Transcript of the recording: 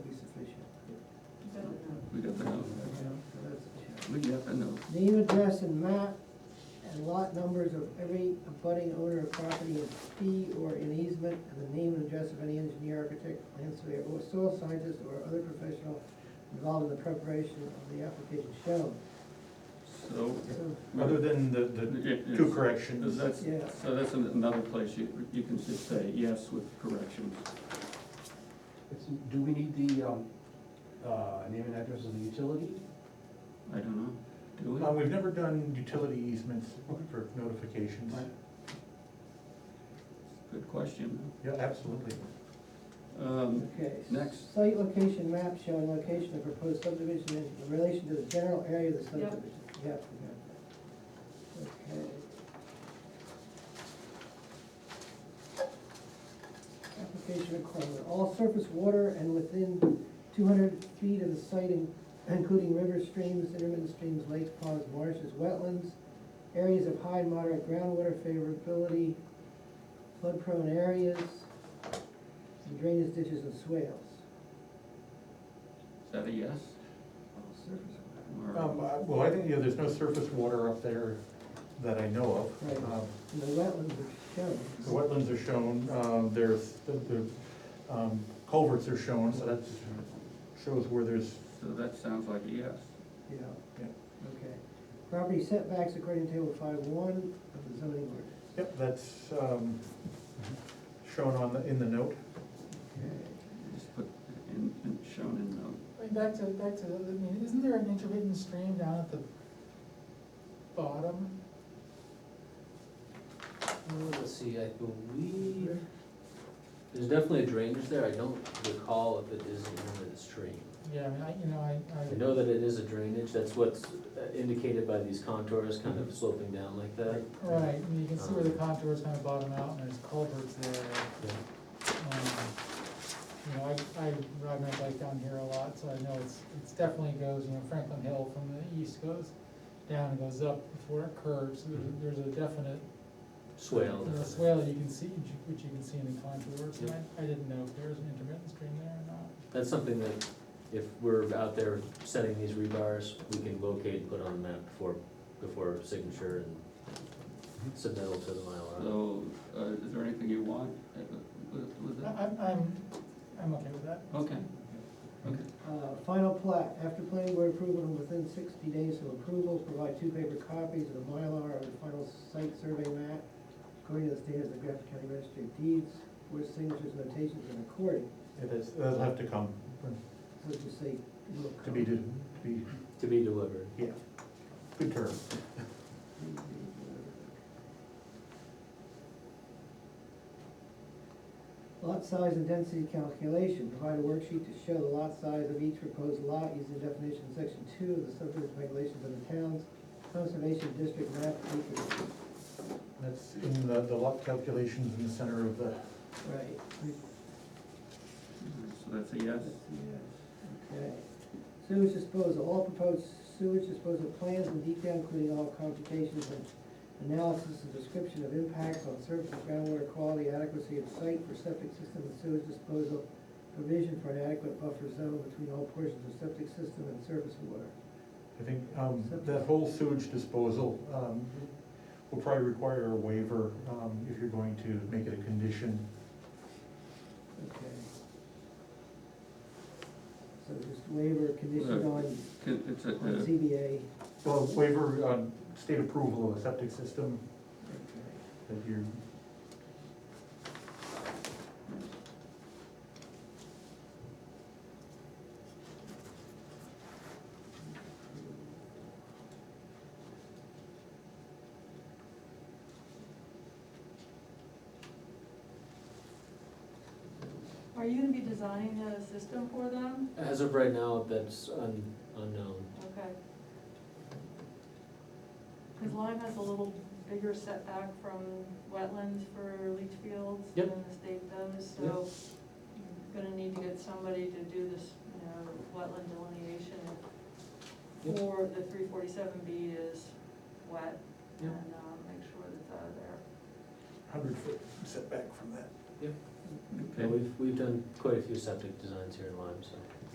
I know. Name, address, and map, and lot numbers of every abutting owner of property in fee or in easement, and the name and address of any engineer, architect, land surveyor, or soil scientist, or other professional involved in the preparation of the application shown. So. So, Other than the, the it- it's- two corrections. That's, Yeah. so that's an- another place you, you can just say yes with corrections. It's- Do we need the, um, uh, name and address of the utility? I don't know, do Uh, we? we've never done utility easements for notifications. Right. Good question. Yeah, absolutely. Um, Okay. Next. Site location map showing location of proposed subdivision in relation to the general area of the subdivision. Yep. we got that. Okay. Application requirement, all surface water and within two hundred feet of the site, in- including rivers, streams, intermittent streams, lakes, ponds, marshes, wetlands, areas of high and moderate groundwater favorability, flood prone areas, and drainage ditches and swales. is that a yes? All surface water. Or- Um, I- well, I think, you know, there's no surface water up there that I know of. Right. Um, And the wetlands are shown. The wetlands are shown, uh, there's, the, the, um, culverts are shown, so that's, shows where there's, So that sounds like a yes. Yeah, yeah. okay. Property setbacks according to table five one of the zoning ordinance. Yep, that's, um, shown on the, in the note. Okay. Just put in, in, shown in Uh-huh. note. Going back to, back to, I mean, isn't there an intermittent stream down at the bottom? Uh, Let's see, I believe, there's definitely a drainage there, I don't recall if it is an inlet stream. Yeah, I mean, I, you know, I, I. I know that it is a drainage, that's what's uh, indicated by these contours kind of sloping down like that. Right, and you can see where the contours kind of bottom out, and there's culverts there. Yeah. Um, You know, I, I ride my bike down here a lot, so I know it's, it's definitely goes, you know, Franklin Hill from the east goes down and goes up before it curves, Mhm. there's, there's a definite. Swale. There's a swale you can see, which you can see in the contours, and Yep. I, I didn't know if there was an intermittent stream there or not. That's something that if we're out there setting these rebars, we can locate and put on the map before, before signature and submit it to the Mylar. So, uh, is there anything you want uh, with, with that? I- I'm, I'm, I'm okay with that. Okay, okay. Uh, Final plat, after planning board approval and within sixty days of approval, provide two paper copies of the Mylar of the final site survey map according to the standards of Grafton County Registry of Deeds, where signatures, notations, and recording, It is, that'll have to come, so to say. will to be, come. to be, To be delivered. yeah, good term. Lot size and density calculation, provide a worksheet to show the lot size of each proposed lot using the definition in section two of the subdivision regulations of the town's conservation district map. acreage. That's in the, the lot calculations in the center of the, Right. we- So that's a yes? that's a yes. Okay. Sewage disposal, all proposed sewage disposal plans in detail, including all computations and analysis and description of impacts on surface and groundwater quality, adequacy of site for septic system and sewage disposal, provision for an adequate buffer zone between all portions of septic system and surface water. I think, um, that whole sewage disposal, um, will probably require a waiver, um, if you're going to make it a condition. Okay. So just waiver conditioned Well, on, Can- It's a, on uh, ZBA. Well, waiver on state approval of a septic system Okay. that you're, Are you gonna be designing a system for them? As of right now, that's un- unknown. Okay. Cause Lyme has a little bigger setback from wetlands for leach fields Yep. than the state does, so you're gonna need to get somebody to do this, you know, wetland delineation. Yep. Or the three forty-seven B is wet, and, Yep. um, make sure that it's out of there. hundred foot setback from that. Yeah, okay, we've, we've done quite a few septic designs here in Lyme, so.